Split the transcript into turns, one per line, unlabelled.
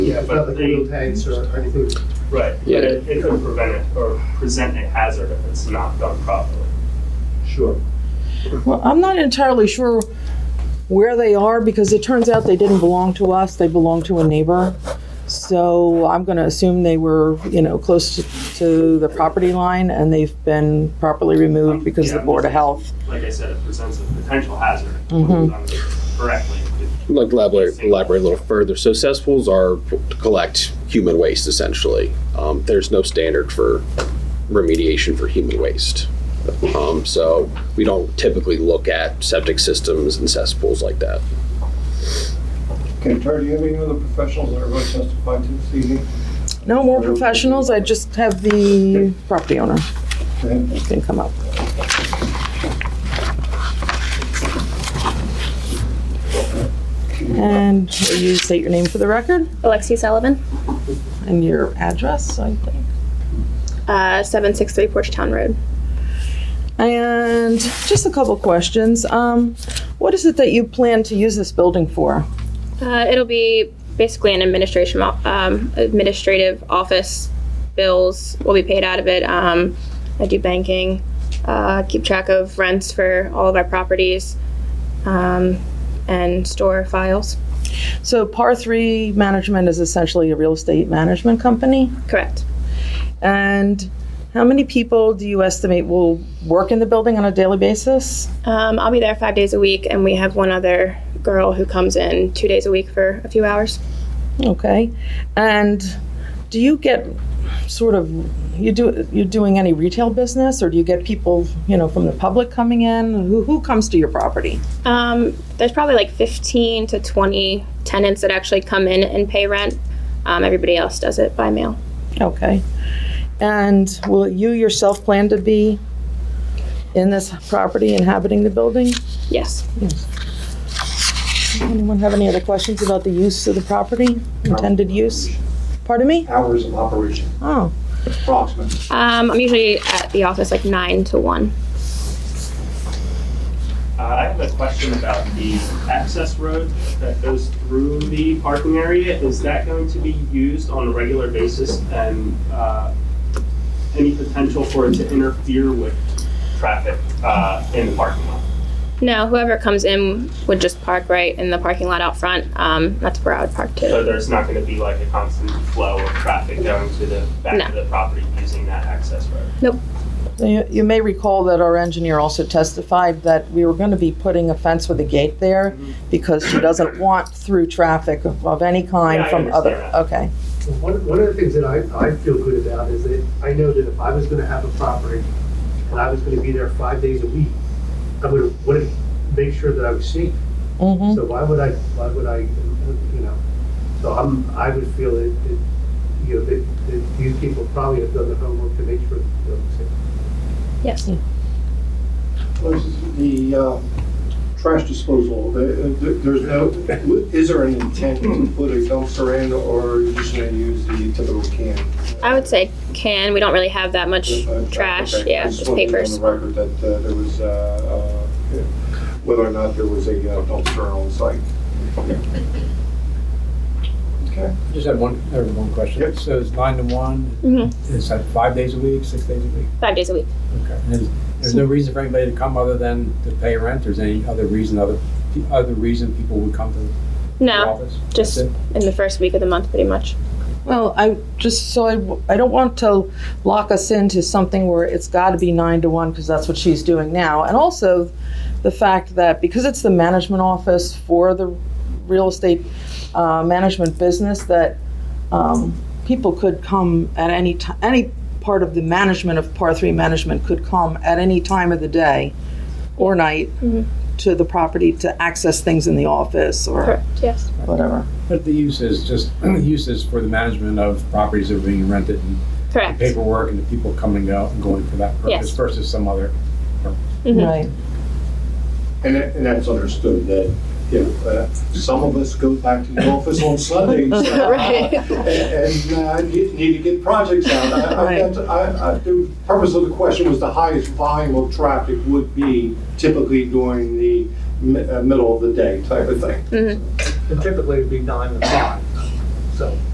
Yeah, it's not
but
like
they-
wheel tanks or or anything.
Right, but
Yeah.
it, it could prevent it or present a hazard if it's not done properly.
Sure.
Well, I'm not entirely sure where they are because it turns out they didn't belong to us, they belonged to a neighbor. So I'm going to assume they were, you know, close to, to the property line and they've been properly removed because of the Board of Health.
Like I said, it presents a potential hazard when it's done correctly.
Like elaborate, elaborate a little further. So cesspools are to collect human waste essentially. Um, there's no standard for remediation for human waste. Um, so we don't typically look at septic systems and cesspools like that.
Okay, Tara, do you have any other professionals that are going to testify to this evening?
No more professionals, I just have the property owner
Okay.
can come up. And will you state your name for the record
Alexi Sullivan,
and your address, I think.
uh, 763 Porchtown Road.
And just a couple questions. Um, what is it that you plan to use this building for?
Uh, it'll be basically an administration o- um, administrative office. Bills will be paid out of it. Um, I do banking, uh, keep track of rents for all of our properties, um, and store files.
So, Par 3 Management is essentially a real estate management company.
Correct.
And how many people do you estimate will work in the building on a daily basis?
Um, I'll be there five days a week, and we have one other girl who comes in two days a week for a few hours.
Okay. And do you get sort of you do you're doing any retail business or do you get people, you know, from the public coming in? Who who comes to your property?
Um, there's probably like 15 to 20 tenants that actually come in and pay rent. Um, everybody else does it by mail.
Okay. And will you yourself plan to be in this property, inhabiting the building?
Yes.
Anyone have any other questions about the use of the property, intended use? Pardon me?
Hours of operation,
Oh,
approximately.
Um, I'm usually at the office like 9 to 1.
Uh, I have a question about the access road that goes through the parking area. Is that going to be used on a regular basis and uh, any potential for it to interfere with traffic uh, in the parking lot?
No, whoever comes in would just park right in the parking lot out front. Um, that's where I would park
So
too.
there's not going to be like a constant flow of traffic going to the back of the property using that access road?
You you may recall that our engineer also testified that we were going to be putting a fence with a gate there
Mm-hmm.
because she doesn't want through traffic of of any kind
Yeah, I
from other,
understand
okay.
One, one of the things that I, I feel good about is that I know that if I was gonna have a property and I was gonna be there five days a week, I would, would make sure that I was safe.
Mhm.
So why would I, why would I, you know, so I'm, I would feel that, that, you know, that, that these people probably have done the homework to make sure that they're safe.
Yes.
Was the uh, trash disposal, the- uh, the- there's no, is there any intent to put a dumpster in or are you just going to use the typical can?
I would say can. We don't really have that much
Uh,
trash.
okay.
Yeah,
I just
just
wanted to be
papers.
On the record that uh, there was, uh, uh, whether or not there was a uh, dumpster on site. Okay.
Just had one, I had one question.
Yep.
So it's nine to one,
hmm
is that five days a week, six days a week?
Five days a week.
Okay. And there's- There's no reason for anybody to come other than to pay rent? There's any other reason, other, the other reason people would come to the
No,
office?
just
That's it?
in the first week of the month, pretty much.
Well, I, just so I, I don't want to lock us into something where it's got to be nine to one, because that's what she's doing now. And also, the fact that because it's the management office for the real estate uh, management business, that um, people could come at any ti, any part of the management of par three management could come at any time of the day or night
Mhm.
to the property to access things in the office or
Correct. Yes.
whatever.
But the use is just, use is for the management of properties that are being rented and the
Correct.
paperwork and the people coming out and going for that purpose
Yes.
versus some other.
Mhm.
Right.
And that- and that's understood that, you know, uh, some of us go back to the office on Sundays. uh,
Right.
and and, uh, need need to get projects out. I- I-
Right.
I- I- The purpose of the question was the highest volume of traffic would be typically during the mi-
Mm-hmm.
uh, middle of the day type of thing.
And typically it'd be nine to five, so.